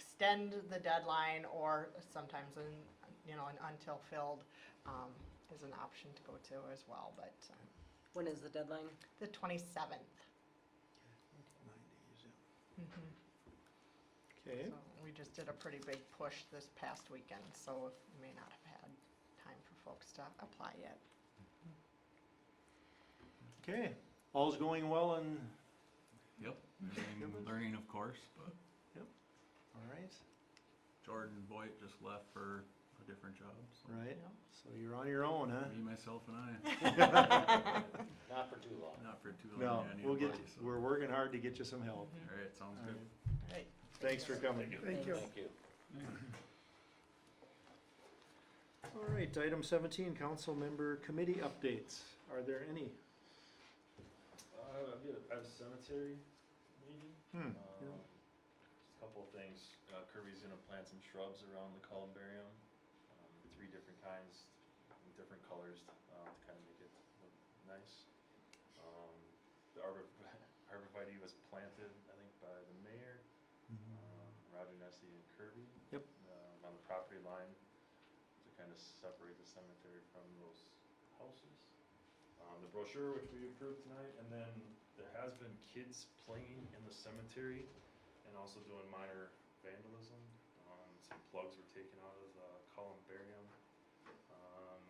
extend the deadline or sometimes an, you know, an until filled, um, is an option to go to as well, but uh, When is the deadline? the twenty-seventh. Mm-hmm. Okay, So we just did a pretty big push this past weekend, so we may not have had time for folks to apply yet. okay, all's going well and, Yep, everything Good one. learning, of course, but all right, Jordan Boyd just left for a different job. So right, you know? so you're on your own, huh? me, myself, and I. Not for too long. Not for too No, long. yeah, we'll get, anybody, you- so. we're working hard to get you some help. All right, sounds All right. good. All Mm-hmm. right. Thanks for coming. Thank you. Thank you. All right, item seventeen, council member committee updates. Are there any? Uh, I've got a, I have a cemetery meeting. Hmm, Um, just a couple of things. Uh, Kirby's gonna plant some shrubs around the columbarium, um, three different kinds, in different colors, um, to kind of make it look nice. Um, the arbor, arborvitae was planted, I think, by the mayor, Mm-hmm. um, Roger Nessie and Kirby. Yep. Um, on the property line to kind of separate the cemetery from those houses. Um, the brochure which we approved tonight, and then there has been kids playing in the cemetery and also doing minor vandalism. Um, some plugs were taken out of the columbarium. Um,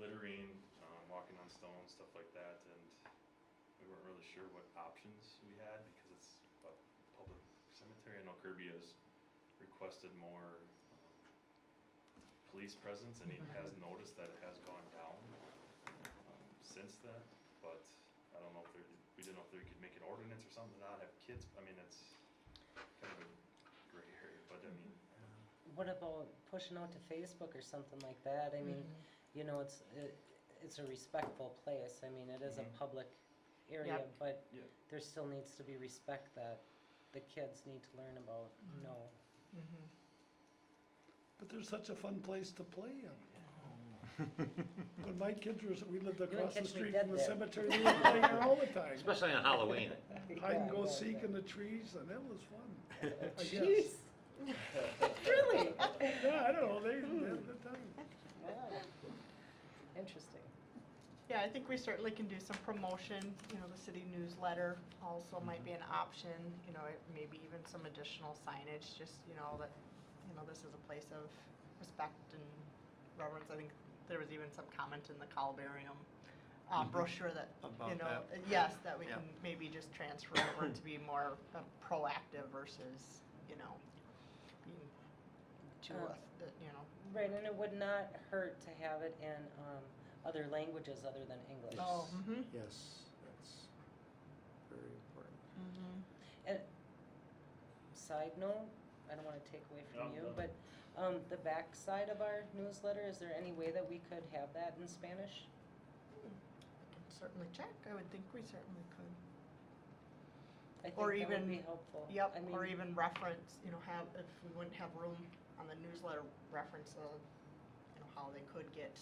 littering, um, walking on stones, stuff like that, and we weren't really sure what options we had because it's a public cemetery. I know Kirby has requested more um, police presence, and he has noticed that it has gone down um, since then. But I don't know if there, we didn't know if they could make an ordinance or something to not have kids. I mean, it's kind of a gray area, but I mean, What about pushing out to Facebook or something like that? I mean, Mm-hmm. you know, it's, it, it's a respectful place. I mean, it is Mm-hmm. Mhm. a public area, Yep. but Yeah. there still needs to be respect that the kids need to learn about, Mhm. Mm-hmm. no. Mhm. But there's such a fun place to play in. When my kids were, we lived wouldn't across the catch me street dead from the there. cemetery, we were playing there all the time. Especially on Halloween. Hide Yeah, and go yeah, seek yeah. in the trees, and it was fun. I guess. Really? Yeah, I don't know, they, they had a good time. Interesting. Yeah, I think we certainly can do some promotion, you know, the city newsletter also might be an Mm-hmm. option, you know, it- maybe even some additional signage, just, you know, that, you know, this is a place of respect and reverence, I think there was even some comment in the columbarium uh, Mhm. brochure that, you About know, that. uh, yes, that we Yeah. can maybe just transfer over to be more uh, proactive versus, you know, being too, Uh, auth- uh, you know, Right, and it would not hurt to have it in, um, other languages other than English. oh, mhm, Yes, that's very important. mhm. side note, I don't wanna take away from No, you, no. but, um, the back side of our newsletter, is there any way that we could have that in Spanish? Can Certainly check, I would think we certainly could. I think Or that would be even- helpful. I Yep, mean, or even reference, you know, have, if we wouldn't have room on the newsletter, reference of, you know, how they could get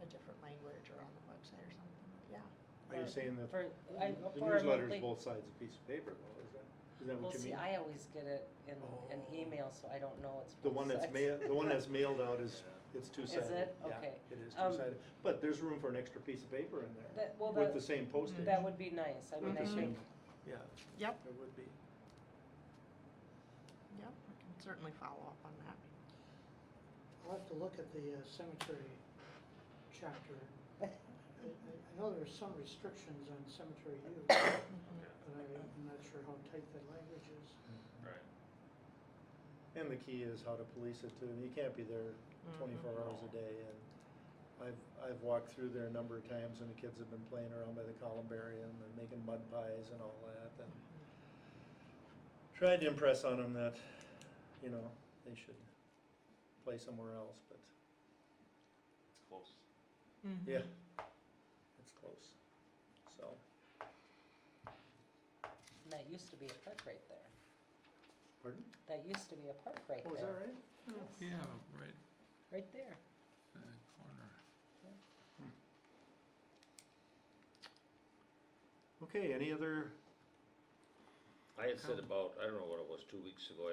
a different language or on the website or something, yeah. Are you Or- saying that uh, For, I, the for a newsletter's monthly- both sides of a piece of paper though, is that, is that well, what you see, mean? I always get it in, an Oh. email, so I don't know it's. The both one that's sides. mailed, the one that's mailed out is, it's Is two-sided. it? Yeah, Okay. It is Um, two-sided, but there's room for an extra piece of paper in there That, well, with that, the same postage. that would be nice, I mean, With I the Mhm. think, same, yeah. Yep. It would be. Yep, we can certainly follow up on that. I'll have to look at the uh, cemetery chapter. I I- I know there are some restrictions on cemetery use, but Mm-hmm. okay, I- I'm not sure how tight that language is. right. And the key is how to police it too. You can't be there Mm-hmm. twenty-four hours a day and I've, I've walked through there a number of times and the kids have been playing around by the columbarium and making mud pies and all that and Mm-hmm. tried to impress on them that, you know, they should play somewhere else, but It's close. yeah, it's close. So, that used to be a park right there, pardon? that used to be a park right Oh, is that there. right? Yes, Yeah, right Right there. in the corner. Okay, any other I had said about, I don't know what it was, two weeks ago,